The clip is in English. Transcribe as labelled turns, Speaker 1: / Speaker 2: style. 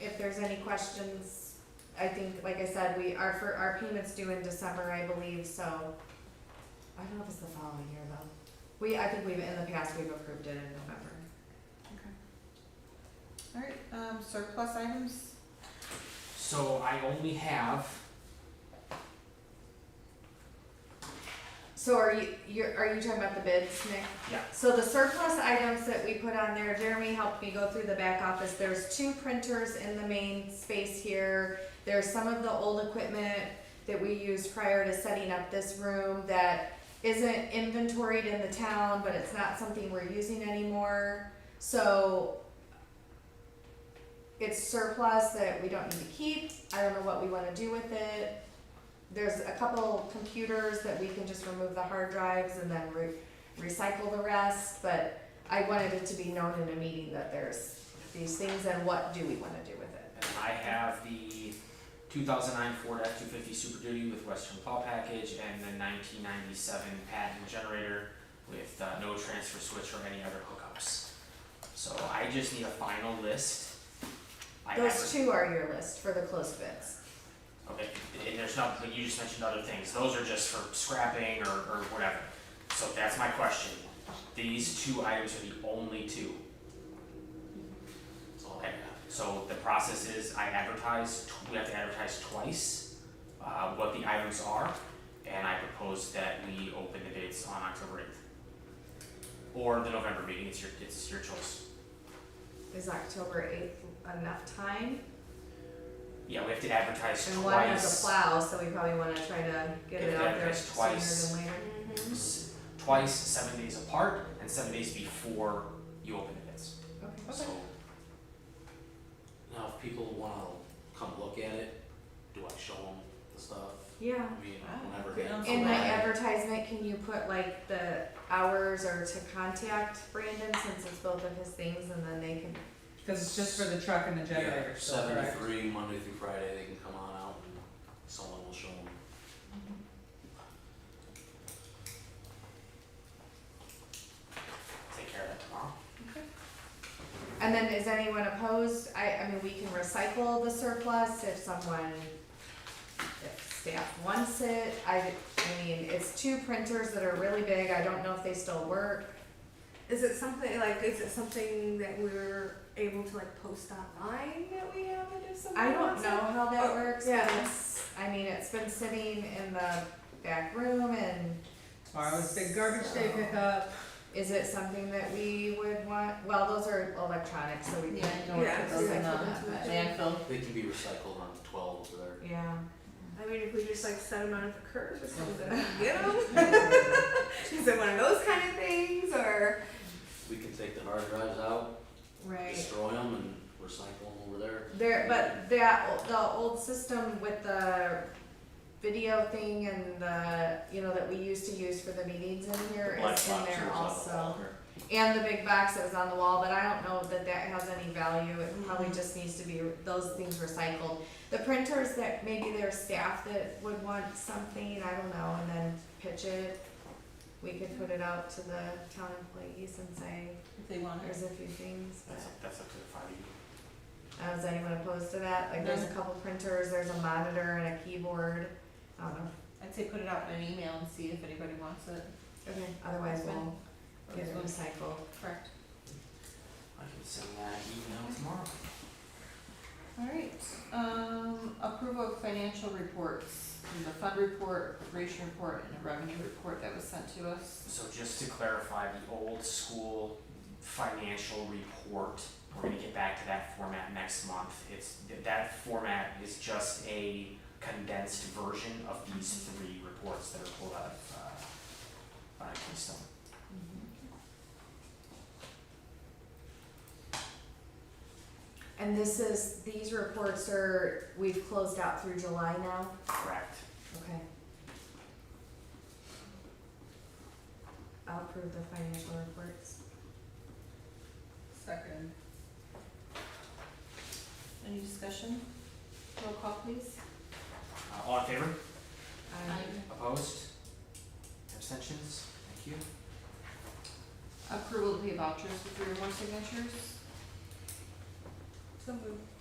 Speaker 1: if there's any questions, I think, like I said, we, our, for, our payment's due in December, I believe, so. I don't know if it's the following year though. We, I think we've, in the past, we've approved it in November.
Speaker 2: All right, um, surplus items,
Speaker 3: So I only have,
Speaker 1: So are you, you're, are you talking about the bids, Nick?
Speaker 3: Yeah.
Speaker 1: So the surplus items that we put on there, Jeremy helped me go through the back office, there's two printers in the main space here. There's some of the old equipment that we used prior to setting up this room that isn't inventoried in the town, but it's not something we're using anymore, so. It's surplus that we don't need to keep, I don't know what we wanna do with it there's a couple computers that we can just remove the hard drives and then re- recycle the rest, but I wanted it to be known in a meeting that there's these things and what do we wanna do with it?
Speaker 3: and I have the two thousand nine Ford F two fifty Super Duty with Western plow package and the nineteen ninety seven patent generator with uh, no transfer switch or any other hookups. So I just need a final list. I
Speaker 1: Those
Speaker 3: adver-
Speaker 1: two are your list for the closed bids.
Speaker 3: Okay, and there's not, but you just mentioned other things, those are just for scrapping or, or whatever. So that's my question, these two items are the only two. Okay, so the process is I advertise, tw- we have to advertise twice, uh, what the items are, and I propose that we open the bids on October eighth. Or the November meeting, it's your, it's your choice.
Speaker 1: Is October eighth enough time?
Speaker 3: Yeah, we have to advertise twice.
Speaker 1: And one has a plow, so we probably wanna try to get it
Speaker 3: Get
Speaker 1: out
Speaker 3: that
Speaker 1: there
Speaker 3: fixed
Speaker 1: sooner
Speaker 3: twice.
Speaker 1: than later.
Speaker 3: s- twice, seven days apart, and seven days before you open the bids.
Speaker 1: Okay.
Speaker 3: So,
Speaker 4: Now, if people wanna come look at it, do I show them the stuff?
Speaker 1: Yeah.
Speaker 4: I mean,
Speaker 2: Ah,
Speaker 4: whenever
Speaker 2: good.
Speaker 4: they come
Speaker 1: In the
Speaker 4: by.
Speaker 1: advertisement, can you put like the hours or to contact Brandon since it's both of his things and then they can
Speaker 2: because it's just for the truck and the generator,
Speaker 4: Yeah,
Speaker 2: so,
Speaker 4: seven to
Speaker 2: correct?
Speaker 4: three, Monday through Friday, they can come on out, and someone will show them.
Speaker 3: take care of that tomorrow.
Speaker 1: And then is anyone opposed? I, I mean, we can recycle the surplus if someone, if staff wants it. I, I mean, it's two printers that are really big. I don't know if they still work.
Speaker 5: Is it something like is it something that we're able to like post online that we have it if someone
Speaker 1: I don't
Speaker 5: wants it?
Speaker 1: know how that works.
Speaker 5: yeah.
Speaker 1: because, I mean, it's been sitting in the back room and
Speaker 2: Tomorrow's big garbage day
Speaker 6: Oh.
Speaker 1: So-
Speaker 2: pickup.
Speaker 1: is it something that we would want? Well, those are electronic, so we,
Speaker 6: Yeah, I don't wanna put those in the landfill.
Speaker 4: They can be recycled on twelve there.
Speaker 1: yeah.
Speaker 5: I mean, if we just like set them out at the curb or something, get them. Is it one of those kind of things or?
Speaker 4: We can take the hard drives out,
Speaker 1: Right.
Speaker 4: destroy them and recycle them over there.
Speaker 1: There, but that, o- the old system with the video thing and the, you know, that we used to use for the meetings in
Speaker 4: The
Speaker 1: here
Speaker 4: black
Speaker 1: is in
Speaker 4: box
Speaker 1: there
Speaker 4: was on the
Speaker 1: also.
Speaker 4: wall there.
Speaker 1: And the big box that was on the wall, but I don't know that that has any value, it probably just needs to be, those things recycled. The printers that, maybe there's staff that would want something, I don't know, and then pitch it. We could put it out to the town employees and say,
Speaker 6: If they want it.
Speaker 1: here's a few things, but.
Speaker 3: That's up, that's up to the five of you.
Speaker 1: Uh, is anyone opposed to that? Like, there's a couple printers, there's a monitor and a keyboard. I don't know.
Speaker 6: I'd say put it out in an email and see if anybody wants it.
Speaker 1: Okay. Otherwise, we'll get it recycled.
Speaker 6: Correct.
Speaker 3: I can send that email tomorrow.
Speaker 6: All right, um, approval of financial reports, the fund report, creation report, and a revenue report that was sent to us.
Speaker 3: So just to clarify, the old school financial report, we're gonna get back to that format next month. It's, th- that format is just a condensed version of these three reports that are pulled out of, uh, uh, Keystone.
Speaker 1: Mm-hmm. And this is, these reports are, we've closed out through July now?
Speaker 3: Correct.
Speaker 1: Okay. I'll approve the financial reports.
Speaker 2: Second.
Speaker 6: Any discussion? Roll call please.
Speaker 3: Uh, all in favor?
Speaker 1: I
Speaker 3: Opposed? Abstentions? Thank you.
Speaker 6: Approval to pay vouchers with three or more signatures.
Speaker 2: So moved.